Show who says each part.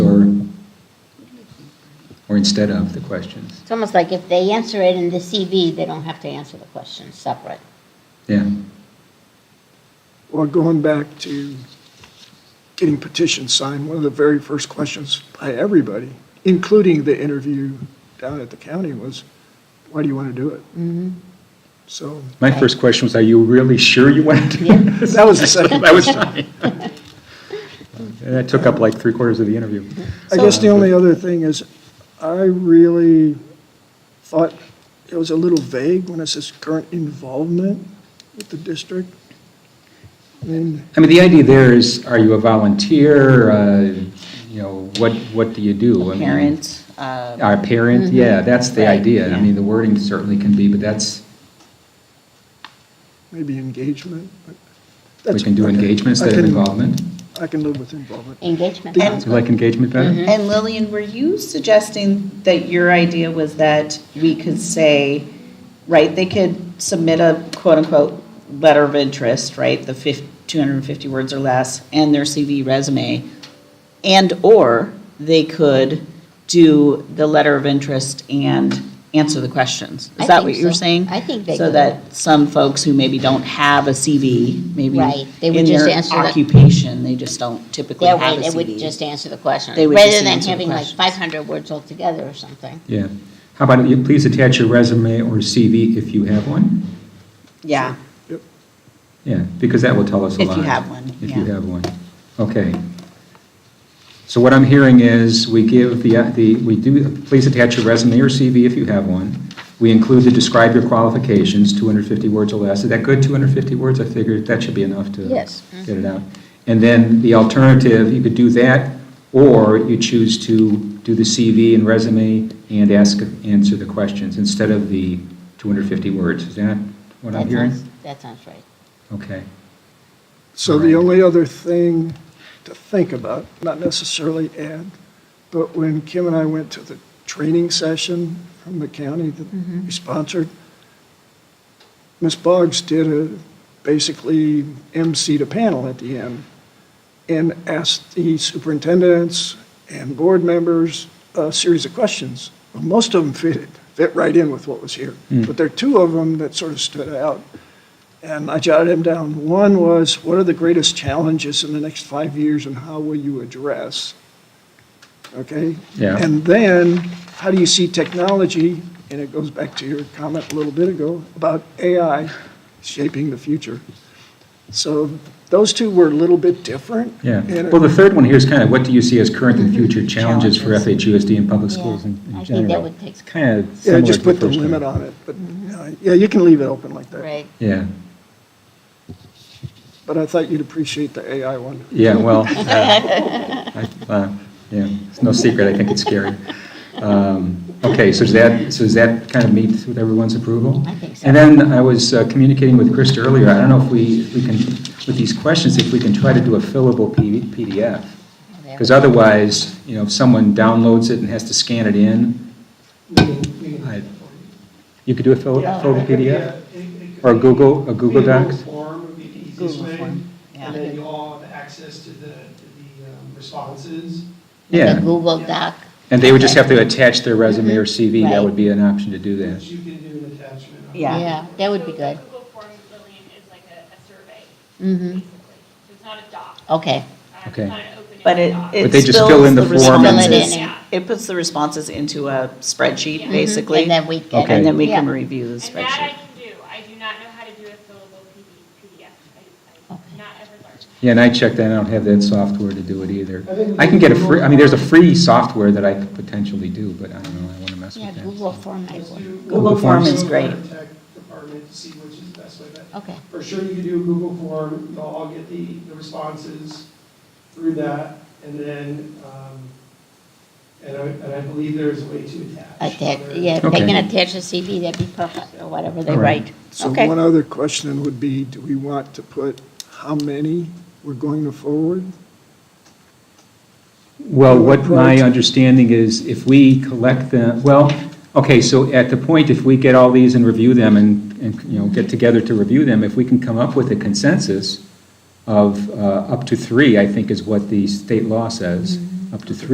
Speaker 1: or instead of the questions.
Speaker 2: It's almost like if they answer it in the CV, they don't have to answer the question separate.
Speaker 1: Yeah,
Speaker 3: Well, going back to getting petitions signed, one of the very first questions by everybody, including the interview down at the county, was, why do you want to do it? So
Speaker 1: my first question was, are you really sure you want to do
Speaker 2: Yeah.
Speaker 1: this?
Speaker 3: that was the second.
Speaker 1: That was mine. And that took up like three quarters of the interview.
Speaker 3: I guess the only other thing is, I really thought it was a little vague when it says current involvement with the district. And
Speaker 1: I mean, the idea there is, are you a volunteer? uh, You know, what, what do you do? I mean,
Speaker 4: Parent, uh,
Speaker 1: Our parent, yeah, that's the
Speaker 4: Right,
Speaker 1: idea. I
Speaker 4: yeah.
Speaker 1: mean, the wording certainly can be, but that's,
Speaker 3: maybe engagement. but
Speaker 1: we
Speaker 3: that's-
Speaker 1: can do
Speaker 3: I
Speaker 1: engagement
Speaker 3: I
Speaker 1: instead of
Speaker 3: can-
Speaker 1: involvement.
Speaker 3: I can live with involvement.
Speaker 2: Engagement.
Speaker 4: And- Mm-hmm.
Speaker 1: Do you like engagement
Speaker 2: Mm-hmm.
Speaker 1: better?
Speaker 4: and Lillian, were you suggesting that your idea was that we could say, right, they could submit a quote-unquote letter of interest, right, the fif, two hundred and fifty words or less, and their CV resume, and/or they could do the letter of interest and answer the questions.
Speaker 2: I
Speaker 4: Is that
Speaker 2: think
Speaker 4: what you're
Speaker 2: so.
Speaker 4: saying?
Speaker 2: I think they
Speaker 4: So
Speaker 2: could.
Speaker 4: that some folks who maybe don't have a CV, maybe
Speaker 2: Right, they would
Speaker 4: in
Speaker 2: just
Speaker 4: their
Speaker 2: answer the-
Speaker 4: occupation, they just don't typically
Speaker 2: That
Speaker 4: have a
Speaker 2: way,
Speaker 4: CV.
Speaker 2: it would just answer the question,
Speaker 4: They would
Speaker 2: rather
Speaker 4: just
Speaker 2: than
Speaker 4: answer the
Speaker 2: having like
Speaker 4: questions.
Speaker 2: 500 words altogether or something.
Speaker 1: Yeah. How about, you please attach your resume or CV if you have one?
Speaker 4: Yeah.
Speaker 3: Yep.
Speaker 1: Yeah, because that will tell us a
Speaker 4: If you
Speaker 1: lot.
Speaker 4: have one,
Speaker 1: If you
Speaker 4: yeah.
Speaker 1: have one. Okay. So what I'm hearing is, we give the, the we do, please attach your resume or CV if you have one. We include the describe your qualifications, 250 words or less. Is that good, 250 words? I figured that should be enough to
Speaker 2: Yes.
Speaker 1: get it out. And then the alternative, you could do that, or you choose to do the CV and resume and ask, answer the questions instead of the 250 words. Is that what I'm
Speaker 2: That
Speaker 1: hearing?
Speaker 2: sounds, that sounds right.
Speaker 1: Okay.
Speaker 3: So the only other thing to think about, not necessarily add, but when Kim and I went to the training session from the county that we sponsored, Ms. Boggs did a, basically emceed a panel at the end and asked the superintendents and board members a series of questions. Well, Most of them fit, fit right in with what was here, but there are two of them that sort of stood out. And I jotted them down. One was, what are the greatest challenges in the next five years and how will you address? Okay?
Speaker 1: Yeah.
Speaker 3: And then, how do you see technology, and it goes back to your comment a little bit ago, about AI shaping the future? So those two were a little bit different.
Speaker 1: Yeah,
Speaker 3: And it-
Speaker 1: well, the third one here is kind of, what do you see as current and future challenges for FHUSD and public
Speaker 2: Yeah,
Speaker 1: schools in
Speaker 2: I
Speaker 1: in general?
Speaker 2: think that would take-
Speaker 1: It's kind of
Speaker 3: Yeah,
Speaker 1: similar to
Speaker 3: just put the
Speaker 1: first one.
Speaker 3: limit on it, but, uh, yeah, you can leave it open like that.
Speaker 2: Right.
Speaker 1: Yeah,
Speaker 3: But I thought you'd appreciate the AI one.
Speaker 1: yeah, well, uh, I- uh, yeah, it's no secret, I think it's scary. Um, Okay, so does that, so does that kind of meet with everyone's approval?
Speaker 2: I think so.
Speaker 1: And then I was uh, communicating with Krista earlier, I don't know if we, if we can, with these questions, if we can try to do a fillable P- PDF.
Speaker 2: There.
Speaker 1: Because otherwise, you know, if someone downloads it and has to scan it in, I- you could do a fill-
Speaker 5: Yeah,
Speaker 1: fillable
Speaker 5: it could be a-
Speaker 1: PDF?
Speaker 5: it- it could
Speaker 1: Or
Speaker 5: be-
Speaker 1: Google- a Google Docs?
Speaker 5: form would be the easiest
Speaker 4: Google
Speaker 5: way,
Speaker 4: form, yeah.
Speaker 5: And then you all have access to the, to the um, responses.
Speaker 2: Like a
Speaker 1: Yeah.
Speaker 2: Google Doc.
Speaker 1: And they would just have to attach their resume or CV, that
Speaker 2: Right.
Speaker 1: would be an option to do
Speaker 5: that
Speaker 1: that.
Speaker 5: You can do an attachment. on.
Speaker 4: Yeah.
Speaker 2: Yeah, that would be good.
Speaker 6: So the Google form, Lillian, is like a, a survey,
Speaker 2: Mm-hmm,
Speaker 6: basically. So it's not a doc.
Speaker 2: okay.
Speaker 6: Um,
Speaker 1: Okay.
Speaker 6: It's not an open-ended
Speaker 4: But it,
Speaker 6: doc.
Speaker 4: it
Speaker 1: they just fill in
Speaker 4: spills the
Speaker 1: the form
Speaker 2: and
Speaker 4: responses.
Speaker 2: then-
Speaker 4: It puts the responses into a spreadsheet,
Speaker 6: Mhm,
Speaker 4: basically,
Speaker 2: And then we can.
Speaker 1: Okay.
Speaker 4: and then we
Speaker 2: yeah.
Speaker 4: can review the
Speaker 6: And that I
Speaker 4: spreadsheet.
Speaker 6: can do. I do not know how to do a fillable PD, PDF. I,
Speaker 2: Okay.
Speaker 6: I've not ever learned.
Speaker 1: Yeah, and I checked that, I don't have that software to do it either. I can get a free, I mean, there's a free software that I could potentially do, but I don't know, I want to mess
Speaker 2: Yeah,
Speaker 1: with that.
Speaker 2: Google Form might
Speaker 5: Let's do
Speaker 2: work.
Speaker 4: Google Form
Speaker 1: Forms.
Speaker 4: is great.
Speaker 5: Google Tech Department to see which is the best way, but
Speaker 2: Okay,
Speaker 5: for sure you can do a Google form, you'll all get the, the responses through that, and then, um, and I, and I believe there's a way to attach.
Speaker 2: attach,
Speaker 5: other-
Speaker 2: yeah, if they
Speaker 1: Okay.
Speaker 2: can attach a CV, that'd be perfect, or whatever they
Speaker 1: All right.
Speaker 2: write.
Speaker 3: So
Speaker 2: Okay.
Speaker 3: one other question would be, do we want to put how many we're going to forward?
Speaker 1: Well, what my
Speaker 3: Right.
Speaker 1: understanding is, if we collect them, well, okay, so at the point, if we get all these and review them and, and, you know, get together to review them, if we can come up with a consensus of uh, up to three, I think is what the state law says, up to three.